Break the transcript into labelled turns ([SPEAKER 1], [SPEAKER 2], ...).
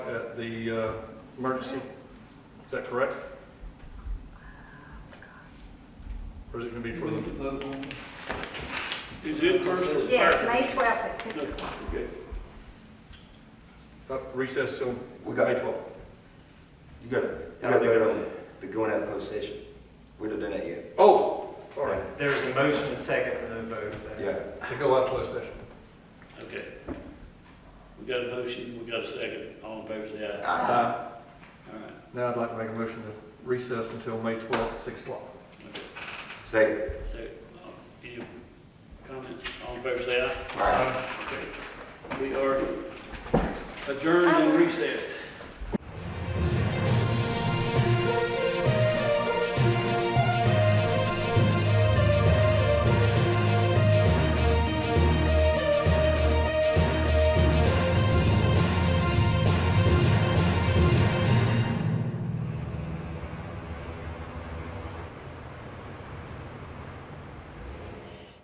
[SPEAKER 1] at the uh, emergency. Is that correct? Or is it going to be for the,
[SPEAKER 2] Is it first or
[SPEAKER 3] Yes,
[SPEAKER 2] second?
[SPEAKER 3] May 12th at 6
[SPEAKER 2] Okay,
[SPEAKER 3] o'clock.
[SPEAKER 2] good.
[SPEAKER 1] uh, recess till
[SPEAKER 4] We got
[SPEAKER 1] May
[SPEAKER 4] it.
[SPEAKER 1] 12th?
[SPEAKER 4] You got to You got to vote on the going out of closed session. We don't done that yet.
[SPEAKER 1] Oh, all right,
[SPEAKER 5] There was a motion, a second, and no vote.
[SPEAKER 4] Yeah.
[SPEAKER 1] to go out of closed session.
[SPEAKER 2] Okay. We got a motion, we got a second, all in favor say aye.
[SPEAKER 4] Aye.
[SPEAKER 1] Uh,
[SPEAKER 2] All right,
[SPEAKER 1] Now I'd like to make a motion to recess until May 12th at 6 o'clock.
[SPEAKER 2] okay,
[SPEAKER 4] Second.
[SPEAKER 2] so, um, any comments, all in favor say aye.
[SPEAKER 4] All right.
[SPEAKER 2] Okay, we are adjourned and recessed.